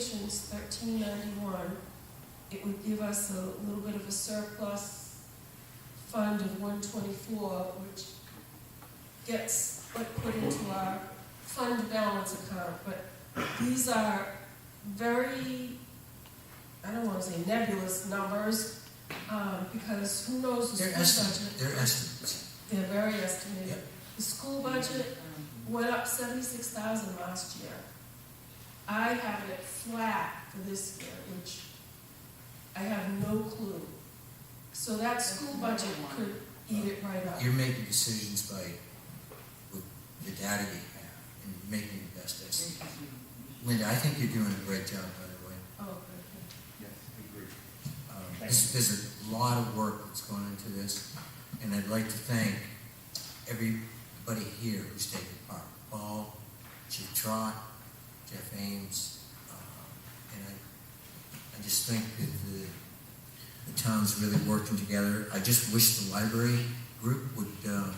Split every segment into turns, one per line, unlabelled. Patients, thirteen ninety-one, it would give us a little bit of a surplus fund of one twenty-four, which gets put, put into our fund balance account, but these are very, I don't wanna say nebulous numbers, um, because who knows the
They're
school
estimates,
budget?
they're estimates.
They're very estimated.
Yep.
The school budget went up seventy-six thousand last year. I have it flat for this year, which I have no clue. So that school budget could eat it right up.
You're making decisions by, with the data you have and making the best
Um,
estimate. Linda, I think you're doing a great job, by the way.
Oh, okay.
Yes, agreed.
Um, This, there's a lot of work that's gone into this, and I'd like to thank everybody here who's taken part. Paul, Chief Trot, Jeff Ames, um, and I, I just think that the, the town's really working together. I just wish the library group would, um,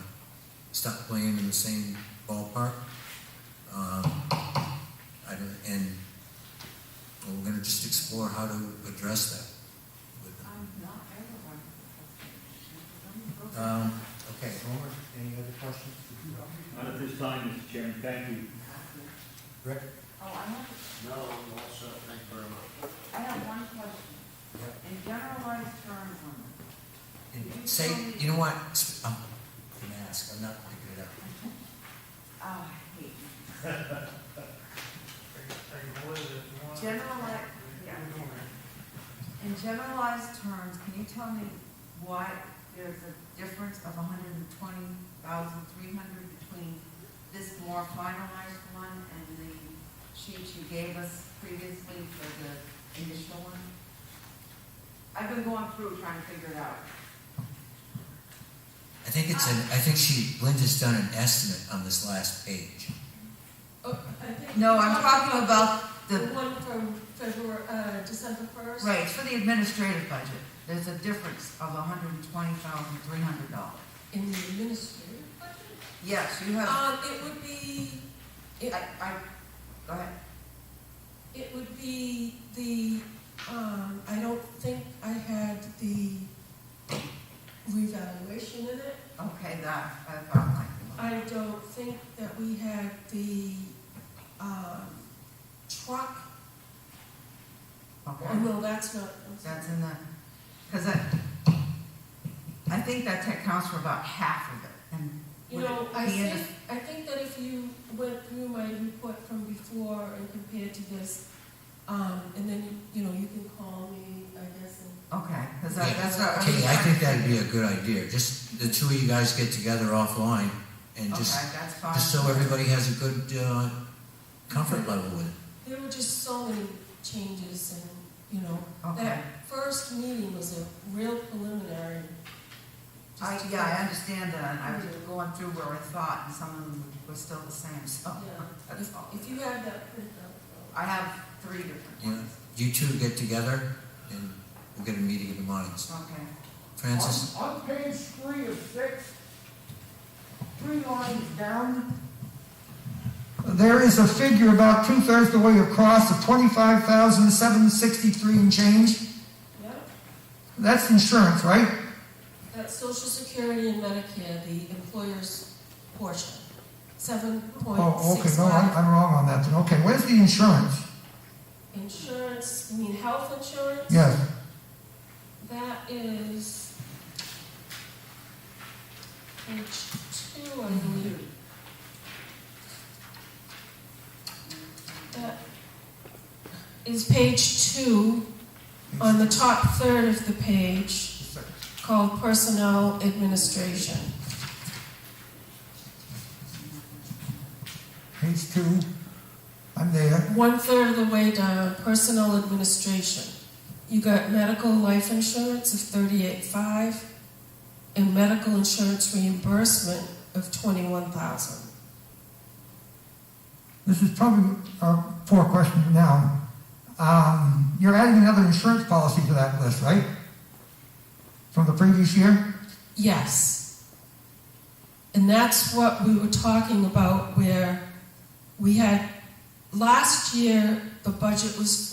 stop playing in the same ballpark. Um, I don't, and we're gonna just explore how to address that with them.
I'm not everyone.
Um, okay, Homer, any other questions?
Not at this time, Mr. Chairman, thank you.
Rick?
Oh, I have,
No, I'm all set, thank you very much.
I have one question. In generalized terms, on
And Say, you know what, S- um, can I ask, I'm not picking it up.
oh, I hate. Generalized,
Generalized,
yeah. In generalized terms, can you tell me why there's a difference of hundred and twenty thousand three hundred between this more finalized one and the sheet you gave us previously for the initial one? I've been going through trying to figure it out.
I think it's an, I think she, Linda's done an estimate on this last page.
Oh, I think-
No, I'm talking about
The
the,
one from February, uh, December first?
right, it's for the administrative budget. There's a difference of hundred and twenty thousand three hundred dollars.
In the administrative budget?
Yes, you have,
Um, it would be,
I, I, go ahead.
it would be the, um, I don't think I had the revaluation in it.
Okay, that, I thought might be.
I don't think that we had the, um, truck, oh,
Okay,
no, that's not.
that's in the, because uh, I, I think that tech counts for about half of it, and.
You
would it
know, I
be in the-
think, I think that if you went through my report from before and compared to this, um, and then, you know, you can call me, I guess, and
Okay, because
Yeah.
that's what. I'm
Katie, I
trying-
think that'd be a good idea, just the two of you guys get together offline and just,
Okay, that's fine.
just so everybody has a good, uh, comfort level with it.
there were just so many changes and, you know,
Okay,
that first meeting was a real preliminary. just
I,
to
yeah, I
get-
understand that, and I was just going through where I thought, and some of them were still the same, so,
Yeah,
that's
if,
all.
if you had that printout,
I have three different
Yeah.
ones.
You two get together and we'll get a meeting in the morning.
Okay.
Francis?
On on page three of six, three lines down,
There is a figure about two-thirds the way across of twenty-five thousand, seven sixty-three and change.
yeah,
That's insurance, right?
that's social security and Medicare, the employer's portion, seven
Oh,
point
okay,
six
no, I'm,
five.
I'm wrong on that, then, okay, where's the insurance?
Insurance, you mean health insurance?
Yes,
That is page two, I
Mm-hmm.
believe. That is page two, on the top third of the page, called Personnel Administration.
page two, I'm there,
One-third of the way down, Personnel Administration. You got medical life insurance of thirty-eight-five, and medical insurance reimbursement of twenty-one thousand.
this is probably a poor question now. Um, you're adding another insurance policy to that list, right? From the previous year?
Yes. And that's what we were talking about where we had last year, the budget was